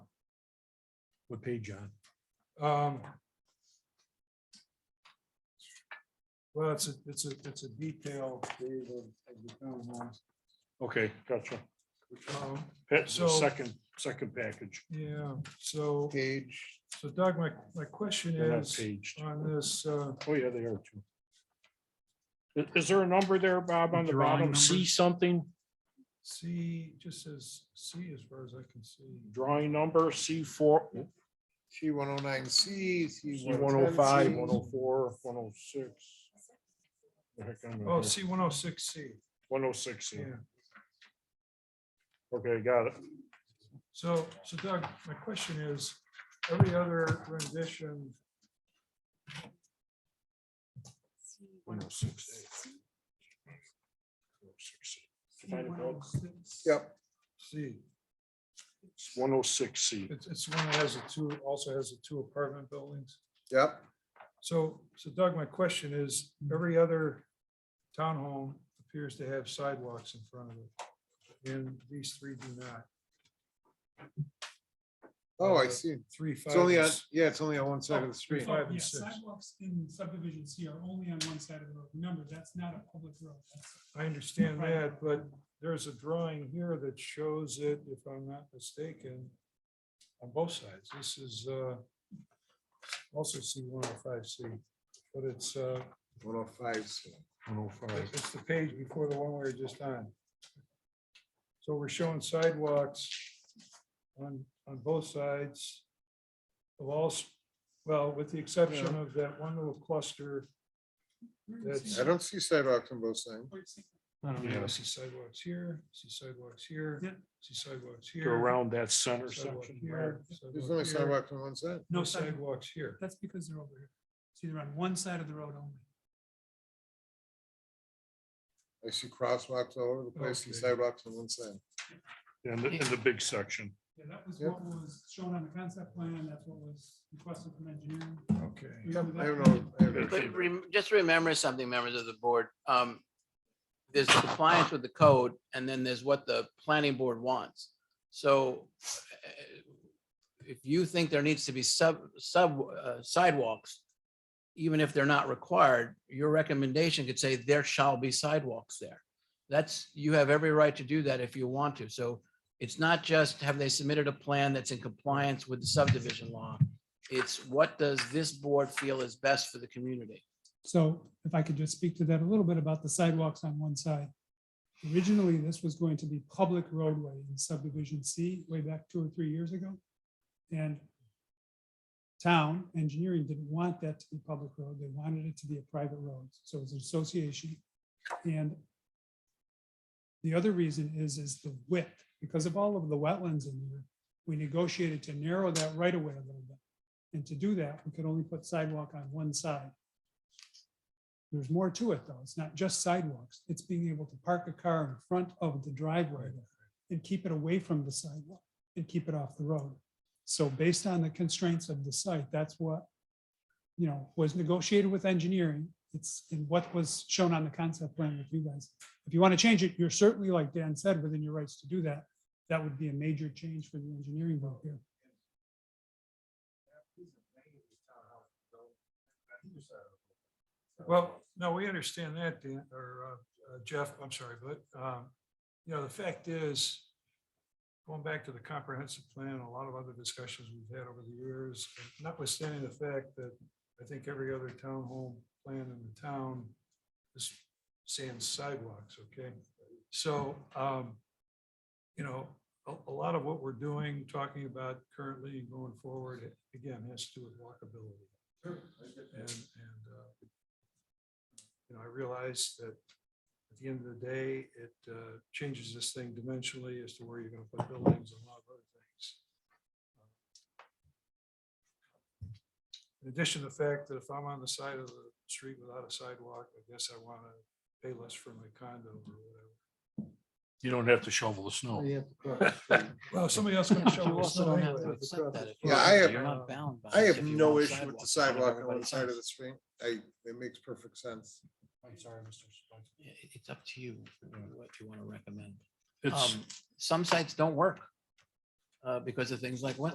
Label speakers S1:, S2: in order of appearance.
S1: What page, John? Um. Well, it's a, it's a, it's a detail, Dave, of of the town hall.
S2: Okay, gotcha.
S1: Um,
S2: That's the
S1: So-
S2: second, second package.
S1: Yeah, so,
S3: Page,
S1: so Doug, my, my question
S2: They're not
S1: is
S2: paged.
S1: on this, uh,
S2: Oh, yeah, they are too. Is, is there a number there, Bob, on the
S4: Drawing
S2: bottom?
S4: number?
S2: See something?
S1: C, just says C as far as I can see.
S2: Drawing number C four,
S3: C one oh nine C, C
S2: C
S3: one
S2: one oh five, one oh four, one oh six.
S1: Oh, C one oh six C,
S2: One oh six,
S1: yeah.
S2: okay, got it.
S1: So, so Doug, my question is, every other rendition,
S2: One oh six. oh Find it, Bob.
S3: Yep,
S1: C,
S2: One oh six C.
S1: it's, it's the one that has the two, also has the two apartment buildings.
S3: yep,
S1: So, so Doug, my question is,
S3: Mm-hmm.
S1: every other townhome appears to have sidewalks in front of it. And these three do not,
S3: oh, I see,
S1: three,
S3: it's
S1: five.
S3: only on,
S1: and s-
S3: yeah, it's only on one
S2: Oh,
S3: side of the street,
S1: five and
S5: Yeah,
S1: six.
S5: Sidewalks in subdivision C are only on one side of the road. Remember, that's not a public road. That's
S1: I understand that, but there's a drawing here that shows it, if I'm not mistaken, on both sides. This is uh, also C one oh five C, but it's, uh,
S3: one oh five C.
S2: One oh five.
S1: it's the page before the one we were just on. So we're showing sidewalks on, on both sides of all, s- well, with the exception of that one little cluster. That's-
S3: I don't see sidewalks on both sides.
S4: I don't
S1: You know,
S4: know.
S1: I see sidewalks here, see sidewalks here,
S5: Yeah.
S1: see sidewalks
S2: Go
S1: here.
S2: around that center
S1: sidewalk
S2: section.
S1: here,
S3: There's
S1: sidewalk
S3: only
S1: here,
S3: sidewalks on one side.
S5: No
S1: No
S5: sidewalk.
S1: sidewalks here.
S5: That's because they're over here. See, they're on one side of the road only.
S3: I see crosswalks all over the place and
S1: Okay.
S3: sidewalks on one side.
S2: And the, and the big section.
S5: Yeah, that was
S3: Yep.
S5: what was shown on the concept plan. That's what was requested from engineering.
S1: Okay.
S3: Yep, I don't know. I have no-
S2: Okay.
S6: But rem- just remember something, members of the board. Um, There's compliance with the code and then there's what the planning board wants. So uh, if you think there needs to be sub, sub uh, sidewalks, even if they're not required, your recommendation could say there shall be sidewalks there. That's, you have every right to do that if you want to. So it's not just have they submitted a plan that's in compliance with the subdivision law. It's what does this board feel is best for the community?
S5: So if I could just speak to that a little bit about the sidewalks on one side. Originally, this was going to be public roadway in subdivision C way back two or three years ago. And town engineering didn't want that to be public road. They wanted it to be a private road. So it was an association. And the other reason is, is the width, because of all of the wetlands in here, we negotiated to narrow that right away a little bit. And to do that, we could only put sidewalk on one side. There's more to it, though. It's not just sidewalks. It's being able to park a car in front of the driveway and keep it away from the sidewalk and keep it off the road. So based on the constraints of the site, that's what, you know, was negotiated with engineering. It's in what was shown on the concept plan with you guys. If you want to change it, you're certainly, like Dan said, within your rights to do that. That would be a major change for the engineering group here.
S1: Well, no, we understand that, Dan, or uh, uh, Jeff, I'm sorry, but, um, you know, the fact is, going back to the comprehensive plan, a lot of other discussions we've had over the years, notwithstanding the fact that I think every other townhome plan in the town is saying sidewalks, okay? So, um, you know, a, a lot of what we're doing, talking about currently and going forward, again, has to do with walkability. And, and, uh, you know, I realize that at the end of the day, it uh, changes this thing dimensionally as to where you're going to put buildings and a lot of other things. In addition to the fact that if I'm on the side of the street without a sidewalk, I guess I want to pay less for my condo or whatever.
S2: You don't have to shovel the snow.
S1: Well, somebody else
S6: You
S1: can show us.
S6: also
S1: some
S6: don't have
S1: anyway.
S6: to accept that if you
S3: Yeah,
S6: want
S3: I
S6: to.
S3: have-
S6: You're not bound by
S3: I
S6: it
S3: have
S6: if you
S3: no
S6: want
S3: issue with the
S6: sidewalks. I know
S3: sidewalk on one
S6: everybody
S3: side of
S6: does.
S3: the street. I, it makes perfect sense.
S6: Yeah, it- It's up to you what you want to recommend.
S2: It's,
S6: Um, Some sites don't work uh, because of things like wetlands.